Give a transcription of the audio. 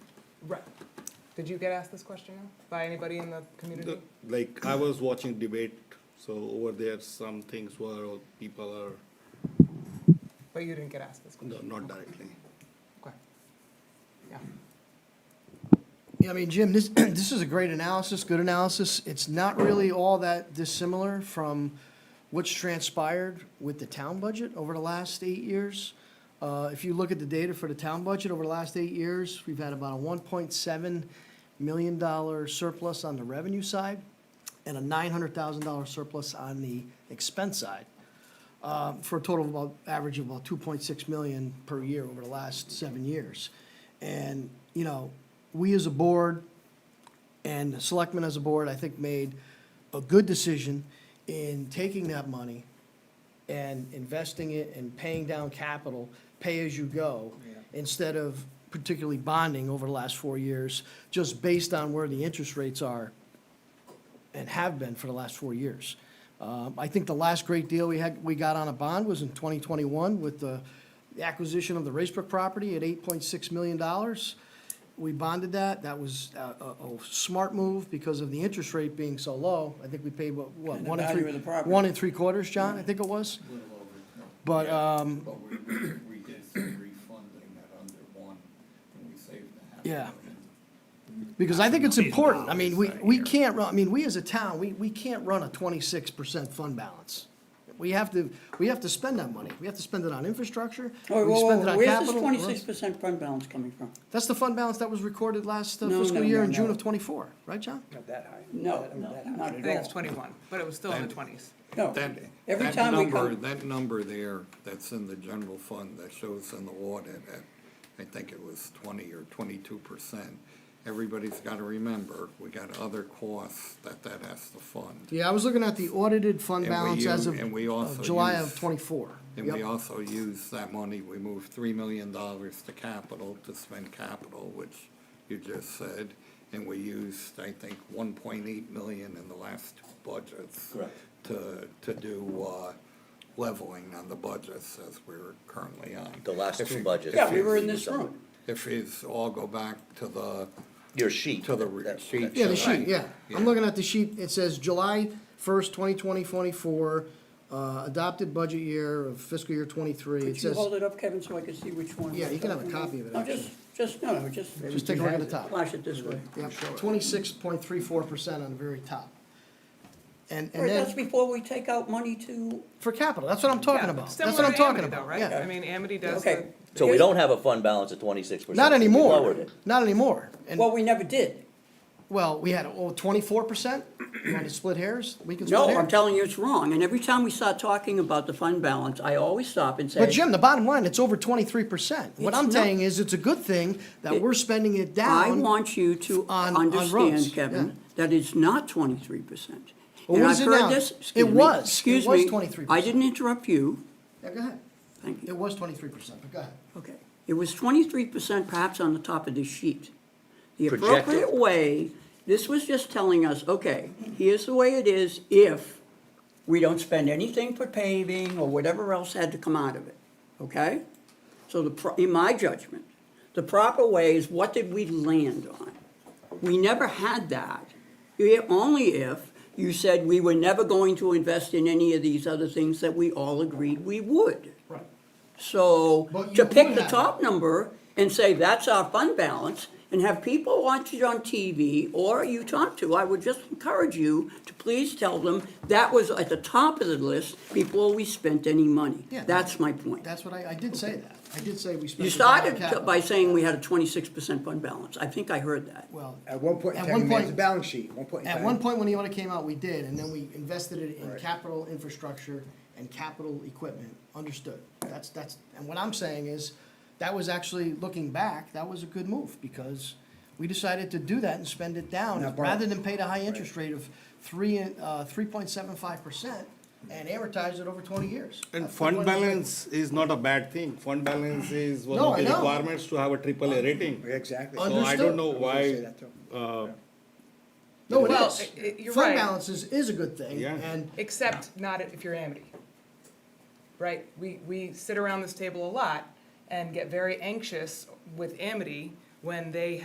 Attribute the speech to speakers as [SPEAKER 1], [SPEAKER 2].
[SPEAKER 1] Right. Did you get asked this question by anybody in the community?
[SPEAKER 2] The- Like, I was watching debate, so over there, some things were, or people are,
[SPEAKER 1] But you didn't get asked this question?
[SPEAKER 2] no, not directly.
[SPEAKER 1] Okay. Yeah.
[SPEAKER 3] Yeah, I mean, Jim, this, this is a great analysis, good analysis. It's not really all that dissimilar from what's transpired with the town budget over the last eight years. Uh, if you look at the data for the town budget over the last eight years, we've had about a one point seven million dollar surplus on the revenue side and a nine hundred thousand dollar surplus on the expense side uh, for a total of about, average of about 2.6 million per year over the last seven years. And, you know, we as a board and the selectmen as a board, I think, made a good decision in taking that money and investing it and paying down capital, pay-as-you-go, instead of particularly bonding over the last four years, just based on where the interest rates are and have been for the last four years. Um, I think the last great deal we had, we got on a bond was in 2021 with the the acquisition of the Racebrook property at $8.6 million. We bonded that. That was uh, a, a smart move because of the interest rate being so low. I think we paid, what, what,
[SPEAKER 4] And the
[SPEAKER 3] one and
[SPEAKER 4] value
[SPEAKER 3] three?
[SPEAKER 4] of the property.
[SPEAKER 3] One and three quarters, John, I think it was.
[SPEAKER 5] little over, no.
[SPEAKER 3] But, um,
[SPEAKER 5] But we, we- we did some refunding at under one, and we saved a half
[SPEAKER 3] Yeah.
[SPEAKER 5] million.
[SPEAKER 3] Because I think it's important. I mean, we, we can't run, I mean, we as a town, we, we can't run a twenty-six percent fund balance. We have to, we have to spend that money. We have to spend it on infrastructure.
[SPEAKER 4] All right,
[SPEAKER 3] we
[SPEAKER 4] whoa,
[SPEAKER 3] spend
[SPEAKER 4] whoa,
[SPEAKER 3] it
[SPEAKER 4] whoa,
[SPEAKER 3] on
[SPEAKER 4] where's this
[SPEAKER 3] capital.
[SPEAKER 4] twenty-six percent fund balance coming from?
[SPEAKER 3] That's the fund balance that was recorded last uh,
[SPEAKER 4] No,
[SPEAKER 3] fiscal
[SPEAKER 4] no,
[SPEAKER 3] year
[SPEAKER 4] no,
[SPEAKER 3] in June
[SPEAKER 4] no.
[SPEAKER 3] of twenty-four, right, John?
[SPEAKER 6] Not that high.
[SPEAKER 4] No,
[SPEAKER 6] Not-
[SPEAKER 4] no,
[SPEAKER 6] not that high.
[SPEAKER 4] not
[SPEAKER 1] I
[SPEAKER 4] at
[SPEAKER 1] think it's
[SPEAKER 4] all.
[SPEAKER 1] twenty-one, but it was still in the
[SPEAKER 7] Thank-
[SPEAKER 1] twenties.
[SPEAKER 4] No,
[SPEAKER 7] That,
[SPEAKER 4] every
[SPEAKER 7] that
[SPEAKER 4] time we
[SPEAKER 7] number,
[SPEAKER 4] come-
[SPEAKER 7] that number there, that's in the general fund, that shows in the audit, at, I think it was twenty or twenty-two percent. Everybody's gotta remember, we got other costs that that has to fund.
[SPEAKER 3] Yeah, I was looking at the audited fund
[SPEAKER 7] And we
[SPEAKER 3] balance as
[SPEAKER 7] use-
[SPEAKER 3] of
[SPEAKER 7] and we
[SPEAKER 3] of
[SPEAKER 7] also
[SPEAKER 3] July
[SPEAKER 7] use-
[SPEAKER 3] of twenty-four.
[SPEAKER 7] And we
[SPEAKER 3] Yep.
[SPEAKER 7] also use that money, we moved three million dollars to capital, to spend capital, which you just said. And we used, I think, one point eight million in the last two budgets.
[SPEAKER 5] Correct.
[SPEAKER 7] To, to do, uh, leveling on the budgets as we're currently on.
[SPEAKER 8] The last
[SPEAKER 7] If
[SPEAKER 8] two
[SPEAKER 7] you-
[SPEAKER 8] budgets.
[SPEAKER 7] if
[SPEAKER 4] Yeah, we
[SPEAKER 7] you-
[SPEAKER 4] were in this room.
[SPEAKER 7] If it's all go back to the,
[SPEAKER 8] Your sheet.
[SPEAKER 7] to the
[SPEAKER 8] that-
[SPEAKER 7] re-
[SPEAKER 8] that-
[SPEAKER 7] sheet.
[SPEAKER 8] that
[SPEAKER 3] Yeah, the
[SPEAKER 8] shows.
[SPEAKER 3] sheet, yeah. I'm looking at the sheet, it says July first, twenty twenty, twenty-four, uh, adopted budget year of fiscal year twenty-three. It
[SPEAKER 4] Could you
[SPEAKER 3] says.
[SPEAKER 4] hold it up, Kevin, so I can see which one?
[SPEAKER 3] Yeah,
[SPEAKER 4] we're
[SPEAKER 3] you can have a
[SPEAKER 4] talking about?
[SPEAKER 3] copy of it,
[SPEAKER 4] No, just, just, no, no, just.
[SPEAKER 3] Just take a look at the top.
[SPEAKER 4] Flash it this way.
[SPEAKER 3] Yeah, twenty-six point three four percent on the very top. And,
[SPEAKER 4] All right,
[SPEAKER 3] and
[SPEAKER 4] that's
[SPEAKER 3] then,
[SPEAKER 4] before we take out money to,
[SPEAKER 3] for capital, that's what I'm talking about, that's what
[SPEAKER 1] Similar
[SPEAKER 3] I'm
[SPEAKER 1] to
[SPEAKER 3] talking
[SPEAKER 1] Amity though,
[SPEAKER 3] about,
[SPEAKER 1] right?
[SPEAKER 3] yeah.
[SPEAKER 1] I mean, Amity does the,
[SPEAKER 4] okay.
[SPEAKER 8] So we don't have a fund balance of twenty-six percent.
[SPEAKER 3] Not
[SPEAKER 8] We lowered
[SPEAKER 3] anymore,
[SPEAKER 8] it.
[SPEAKER 3] not anymore, and,
[SPEAKER 4] Well, we never did.
[SPEAKER 3] well, we had, oh, twenty-four percent, you want to split hairs? We can split
[SPEAKER 4] No,
[SPEAKER 3] hairs.
[SPEAKER 4] I'm telling you it's wrong, and every time we start talking about the fund balance, I always stop and say.
[SPEAKER 3] But Jim, the bottom line, it's over twenty-three percent, what
[SPEAKER 4] It's
[SPEAKER 3] I'm
[SPEAKER 4] not.
[SPEAKER 3] saying is, it's a good thing that
[SPEAKER 4] It-
[SPEAKER 3] we're spending it
[SPEAKER 4] I
[SPEAKER 3] down.
[SPEAKER 4] want you to
[SPEAKER 3] on- on roads,
[SPEAKER 4] understand, Kevin, that it's not twenty-three percent.
[SPEAKER 3] Well,
[SPEAKER 4] And
[SPEAKER 3] what
[SPEAKER 4] I've
[SPEAKER 3] is it
[SPEAKER 4] heard
[SPEAKER 3] now?
[SPEAKER 4] this-
[SPEAKER 3] It
[SPEAKER 4] excuse me,
[SPEAKER 3] was. It
[SPEAKER 4] Excuse
[SPEAKER 3] was
[SPEAKER 4] me,
[SPEAKER 3] 23%.
[SPEAKER 4] I didn't interrupt you,
[SPEAKER 3] Yeah, go ahead,
[SPEAKER 4] thank
[SPEAKER 3] it
[SPEAKER 4] you,
[SPEAKER 3] was twenty-three percent, but go ahead.
[SPEAKER 4] okay. It was twenty-three percent perhaps on the top of this sheet. The
[SPEAKER 8] Projected.
[SPEAKER 4] appropriate way, this was just telling us, okay, here's the way it is if we don't spend anything for paving or whatever else had to come out of it, okay? So the, pro- in my judgment, the proper way is what did we land on? We never had that, I- only if you said we were never going to invest in any of these other things that we all agreed we would. Right. So,
[SPEAKER 3] But
[SPEAKER 4] to
[SPEAKER 3] you
[SPEAKER 4] pick
[SPEAKER 3] would
[SPEAKER 4] the
[SPEAKER 3] have.
[SPEAKER 4] top number and say that's our fund balance, and have people watch it on TV, or you talk to, I would just encourage you to please tell them that was at the top of the list before we spent any money.
[SPEAKER 3] Yeah, that-
[SPEAKER 4] That's my point.
[SPEAKER 3] That's what I, I did say that, I did say we spent.
[SPEAKER 4] You
[SPEAKER 3] it down on
[SPEAKER 4] started to-
[SPEAKER 3] capital.
[SPEAKER 4] by saying we had a twenty-six percent fund balance. I think I heard that.
[SPEAKER 3] Well,
[SPEAKER 6] At one point in
[SPEAKER 3] At
[SPEAKER 6] time,
[SPEAKER 3] one
[SPEAKER 6] you made
[SPEAKER 3] point-
[SPEAKER 6] the balance sheet, one point in time.
[SPEAKER 3] At one point, when the audit came out, we did, and then we invested it in capital infrastructure and capital equipment, understood. That's, that's, and what I'm saying is, that was actually, looking back, that was a good move, because we decided to do that and spend it down,
[SPEAKER 6] Not borrow.
[SPEAKER 3] rather than pay the high interest rate of three, and, uh, three point seven five percent and amortize it over twenty years.
[SPEAKER 2] And
[SPEAKER 3] That's
[SPEAKER 2] fund
[SPEAKER 3] what I'm saying.
[SPEAKER 2] balance is not a bad thing, fund balance is one
[SPEAKER 3] No,
[SPEAKER 2] of
[SPEAKER 3] I
[SPEAKER 2] the
[SPEAKER 3] know.
[SPEAKER 2] requirements to have a triple A rating.
[SPEAKER 6] Exactly.
[SPEAKER 2] So I
[SPEAKER 3] Understood.
[SPEAKER 2] don't
[SPEAKER 6] I
[SPEAKER 2] know
[SPEAKER 6] was gonna say
[SPEAKER 2] why,
[SPEAKER 6] that too.
[SPEAKER 2] uh,
[SPEAKER 3] No, it
[SPEAKER 1] Well,
[SPEAKER 3] is.
[SPEAKER 1] i- i- you're
[SPEAKER 3] Fund
[SPEAKER 1] right.
[SPEAKER 3] balance is, is a good thing,
[SPEAKER 2] Yeah.
[SPEAKER 3] and
[SPEAKER 1] except not if you're Amity. Right? We, we sit around this table a lot and get very anxious with Amity when they